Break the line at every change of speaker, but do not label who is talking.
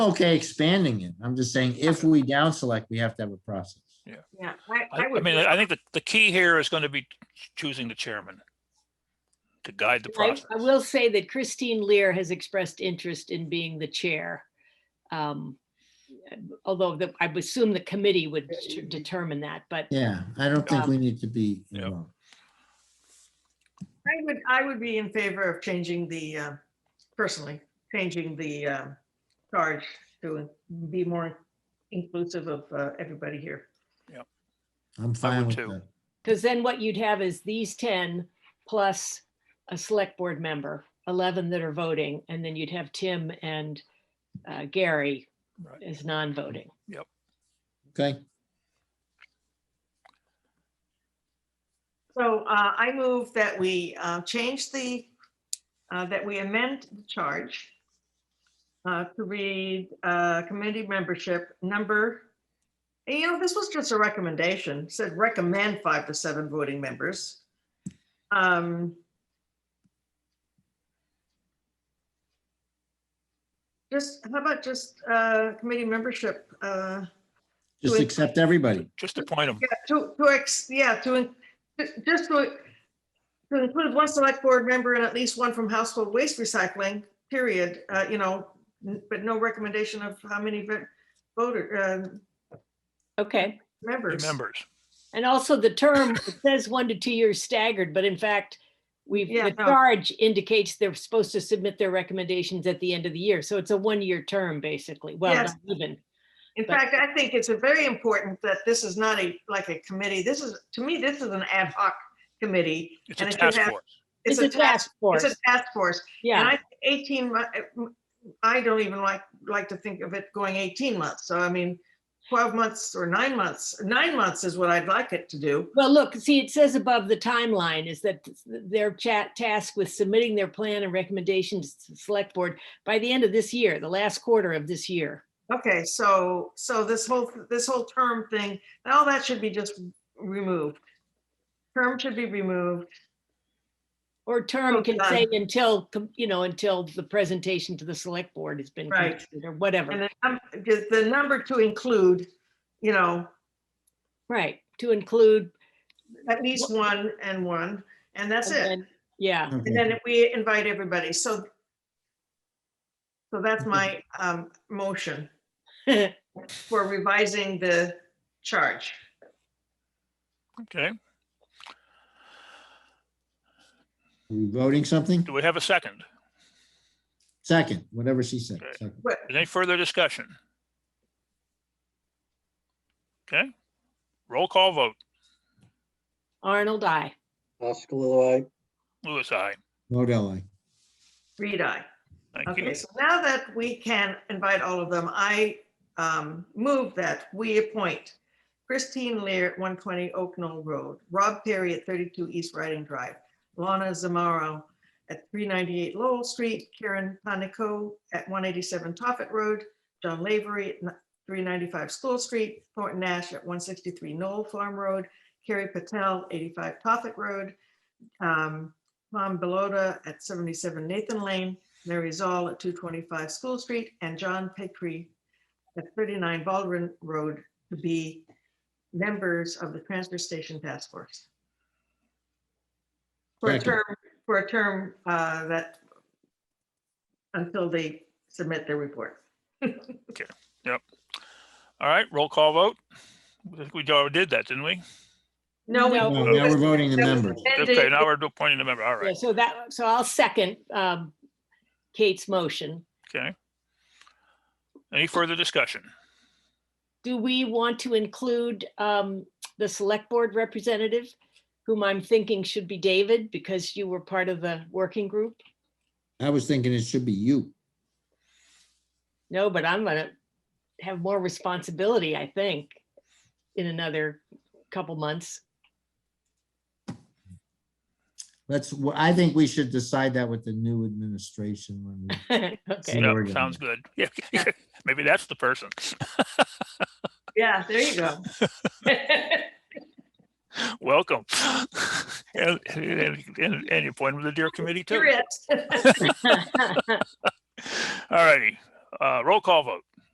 okay expanding it. I'm just saying if we down select, we have to have a process.
Yeah, I,
I
I
I
would.
mean, I think that the key here is going to be choosing the chairman to guide the
I
process.
I will say that Christine Lear has expressed interest in being the chair. Um, Although the, I would assume the committee would t- determine that, but
Yeah, I don't think we need to be
Yeah.
involved.
I would, I would be in favor of changing the, uh, personally, changing the uh, charge to be more inclusive of uh, everybody here.
I'm fine with
too.
that.
because then what you'd have is these 10 plus a select board member, 11 that are voting, and then you'd have Tim and uh, Gary
Right.
as non-voting.
Okay,
So uh, I move that we uh, change the, uh, that we amend the charge uh, to read uh, committee membership number, and, you know, this was just a recommendation, said recommend five to seven voting members. Um, Just, how about just uh, committee membership? uh,
just
Good.
accept everybody.
Just appoint him.
yeah, to, to, ex yeah, to, in- ju- just to, to include one select board member and at least one from household waste recycling, period, uh, you know, n- but no recommendation of how many vo- voter, uh,
Okay,
members.
Members.
and also the term it says one to two years staggered, but in fact, we've,
Yeah,
the
no.
charge indicates they're supposed to submit their recommendations at the end of the year. So it's a one-year term, basically. Well,
Yes.
not even.
In fact, I think it's a very important that this is not a, like a committee, this is, to me, this is an ad hoc committee.
It's a
and it should
task
have-
force.
It's a task, it's a
force.
task force. And
Yeah,
I, 18, mo- eh, I don't even like, like to think of it going 18 months. So I mean, 12 months or nine months, nine months is what I'd like it to do.
well, look, see, it says above the timeline is that th- their chat tasked with submitting their plan and recommendations to the select board by the end of this year, the last quarter of this year.
Okay, so, so this whole, this whole term thing, all that should be just removed. Term should be removed.
Or term can
Okay.
say until, com- you know, until the presentation to the select board has been
Right.
completed or
And
whatever,
then, um, the, the number to include, you know,
right, to include.
at least one and one, and that's
and
it.
then- Yeah.
And
Okay.
then we invite everybody, so. So that's my, um, motion. for revising the charge.
Okay.
We voting something?
Do we have a second?
Second, whatever she said.
Okay.
second.
But
Any further discussion? Okay. Roll call vote.
Arnold, I.
Oskalilua, aye.
Louis, I.
Modell, aye.
read I.
Thank you.
Okay, so now that we can invite all of them, I um, move that we appoint Christine Lear, 120 Oak Knoll Road, Rob Perry at 32 East Riding Drive, Lana Zamaro at 398 Lowell Street, Karen Panico at 187 Toffett Road, John Lavery at 395 School Street, Thornton Nash at 163 Knoll Farm Road, Carrie Patel, 85 Toffett Road, um, Tom Belota at 77 Nathan Lane, Mary Zoll at 225 School Street, and John Petrie at 39 Baldwin Road to be members of the Transfer Station Task Force. For a
Second.
term, for a term uh, that, until they submit their report.
All right, roll call vote. I think We already did that, didn't we?
No, we-
No,
No, Now we're voting the
that was
members.
amended.
Okay, now we're appointing a member. All
Yeah,
right,
so that, so I'll second um, Kate's motion.
okay. Any further discussion?
Do we want to include um, the select board representative, whom I'm thinking should be David, because you were part of the working group?
I was thinking it should be you.
No, but I'm gonna have more responsibility, I think, in another couple months.
Let's, well, I think we should decide that with the new administration. when we-
Okay,
Yeah.
Yeah,
Oregon.
sounds good. Yeah, maybe that's the person.
Yeah, there you go.
Welcome. And, and, and and you appoint him to the Deer Committee too.
Here it is.
All righty, uh, roll call vote.